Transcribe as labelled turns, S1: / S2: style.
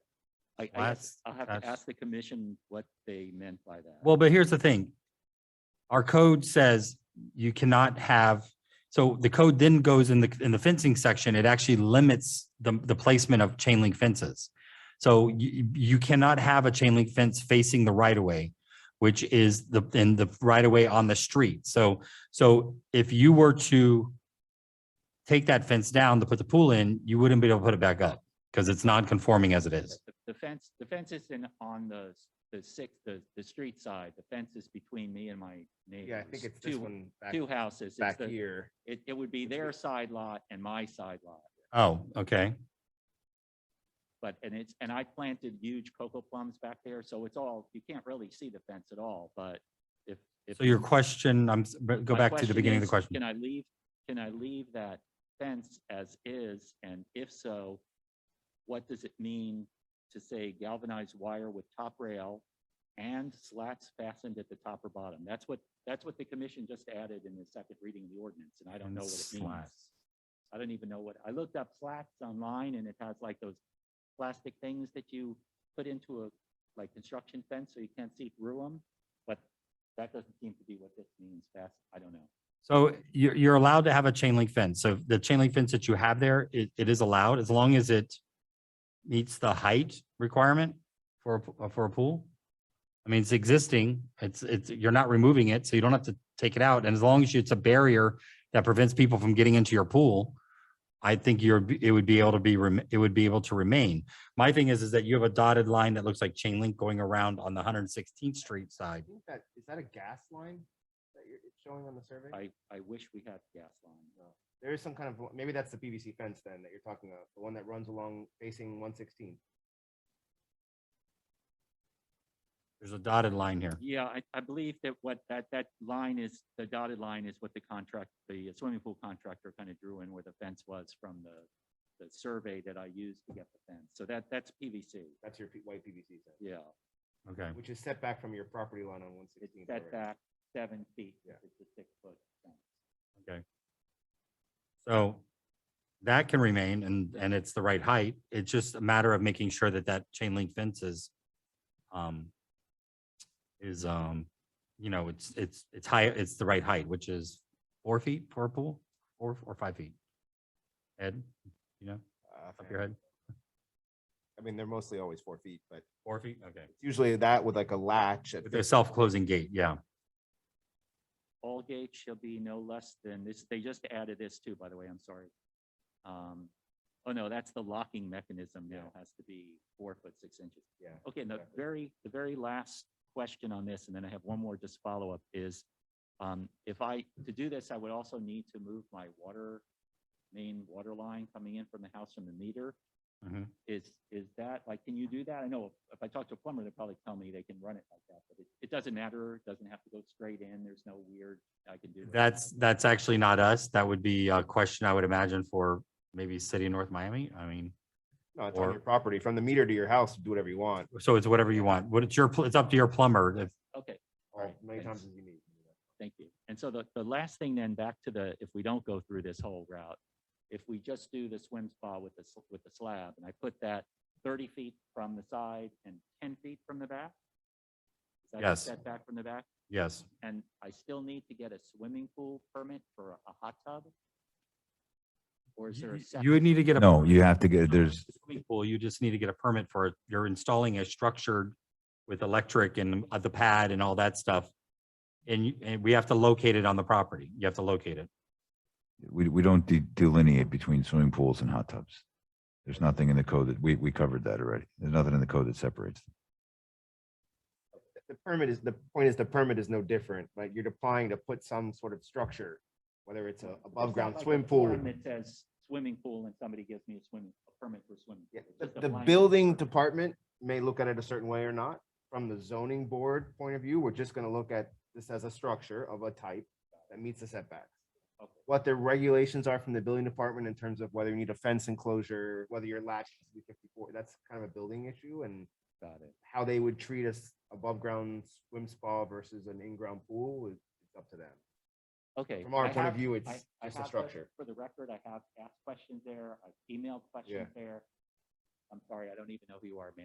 S1: I, I guess
S2: That's-
S1: I'll have to
S2: that's-
S1: ask the commission what they meant by that.
S2: Well, but here's the thing. Our code says you cannot have, so the code then goes in the, in the fencing section, it actually limits the, the placement of chain link fences. So you, you cannot have a chain link fence facing the right of way, which is the, in the right of way on the street. So, so if you were to take that fence down to put the pool in, you wouldn't be able to put it back up because it's non-conforming as it is.
S1: The- The fence, the fence is in, on the, the six, the, the street side. The fence is between me and my neighbors.
S3: Yeah, I think it's this
S1: two,
S3: one back,
S1: Two houses. It's
S3: back
S1: the-
S3: here.
S1: It, it would be their side lot and my side lot.
S2: Oh, okay.
S1: But, and it's, and I planted huge cocoa plums back there, so it's all, you can't really see the fence at all, but if. if-
S2: So your question, I'm, s- but go
S1: my
S2: back to the
S1: question
S2: beginning of the
S1: is,
S2: question.
S1: Can I leave, can I leave that fence as is? And if so, what does it mean to say galvanized wire with top rail and slats fastened at the top or bottom? That's what, that's what the commission just added in the second reading of the ordinance, and I don't
S2: And
S1: know what it means.
S2: slats.
S1: I don't even know what, I looked up slats online and it has like those plastic things that you put into a, like construction fence so you can't see through them. But that doesn't seem to be what this means fast. I don't know.
S2: So you're, you're allowed to have a chain link fence. So the chain link fence that you have there, it, it is allowed as long as it meets the height requirement for, a p- uh, for a pool. I mean, it's existing, it's, it's, you're not removing it, so you don't have to take it out. And as long as it's a barrier that prevents people from getting into your pool, I think you're, b- it would be able to be, rem- it would be able to remain. My thing is, is that you have a dotted line that looks like chain link going around on the 116th Street
S3: I
S2: side.
S3: think that, is that a gas line that you're it's showing on the survey?
S1: I, I wish we had gas line.
S3: No. There is some kind of, maybe that's the PVC fence then that you're talking about, the one that runs along facing one sixteen.
S2: There's a dotted line here.
S1: Yeah, I, I believe that what, that, that line is, the dotted line is what the contract, the swimming pool contractor kind of drew in where the fence was from the, the survey that I used to get the fence. So that, that's PVC.
S3: That's your P- white PVC fence,
S1: Yeah,
S2: Okay.
S3: which is set back from your property line on one
S1: it's
S3: sixteen.
S1: set back seven feet.
S3: Yeah.
S1: It's a six foot fence.
S2: So that can remain and, and it's the right height. It's just a matter of making sure that that chain link fence is, um, is, um, you know, it's, it's, it's high, it's the right height, which is four feet for a pool, four, or five feet. Ed, you know, up your head,
S3: Uh, I mean, they're mostly always four feet, but
S2: four feet, okay.
S3: it's usually that with like a latch. at
S2: With
S3: the-
S2: a self-closing gate, yeah.
S1: all gates shall be no less than this, they just added this too, by the way, I'm sorry. Um, oh no, that's the locking mechanism now has to be four foot, six inches.
S3: Yeah,
S1: Okay, and the
S3: exactly.
S1: very, the very last question on this, and then I have one more just follow up is, um, if I, to do this, I would also need to move my water, main water line coming in from the house from the meter.
S2: Mhm.
S1: Is, is that, like, can you do that? I know if I talk to a plumber, they'll probably tell me they can run it like that, but it, it doesn't matter. It doesn't have to go straight in. There's no weird, I can do. it.
S2: That's, that's actually not us. That would be a question I would imagine for maybe city of North Miami. I mean,
S3: No, it's on
S2: Or-
S3: your property, from the meter to your house, do whatever you want,
S2: so it's whatever you want. What it's your, pl- it's up to your plumber if
S1: Okay,
S3: or as
S1: Alright,
S3: many
S1: thanks.
S3: times as you need.
S1: thank you. And so the, the last thing then, back to the, if we don't go through this whole route, if we just do the swim spa with the, s- with the slab, and I put that thirty feet from the side and ten feet from the back? Is that
S2: Yes.
S1: Set back from the back,
S2: Yes,
S1: and I still need to get a swimming pool permit for a hot tub? Or is there a?
S2: You-
S1: separate-
S2: you would need to get a.
S4: No, you have to get, there's,
S2: Swimming pool, you just need to get a permit for it. You're installing a structured with electric and uh, the pad and all that stuff. And you, and we have to locate it on the property. You have to locate it.
S4: we, we don't de- delineate between swimming pools and hot tubs. There's nothing in the code that, we, we covered that already. There's nothing in the code that separates. them.
S3: The permit is, the point is the permit is no different, like you're applying to put some sort of structure, whether it's a above
S1: It's not
S3: ground
S1: like a
S3: swim pool.
S1: form That says swimming pool and somebody gives me a swimming, a permit for swimming.
S3: Yeah,
S1: pool. It's just
S3: the, the
S1: applying for
S3: building
S1: permit.
S3: department may look at it a certain way or not. From the zoning board point of view, we're just gonna look at this as a structure of a type that meets the setbacks.
S1: Okay.
S3: What the regulations are from the building department in terms of whether you need a fence enclosure, whether your latch is fifty-four, that's kind of a building issue and
S1: Got it.
S3: how they would treat us above ground swim spa versus an in-ground pool is it's up to them.
S1: Okay.
S3: From our
S1: I
S3: point of
S1: have-
S3: view,
S1: I-
S3: it's
S1: I
S3: just
S1: have
S3: a
S1: the-
S3: structure.
S1: For the record, I have asked questions there, I've emailed questions there. I'm sorry, I don't even know who you are, man.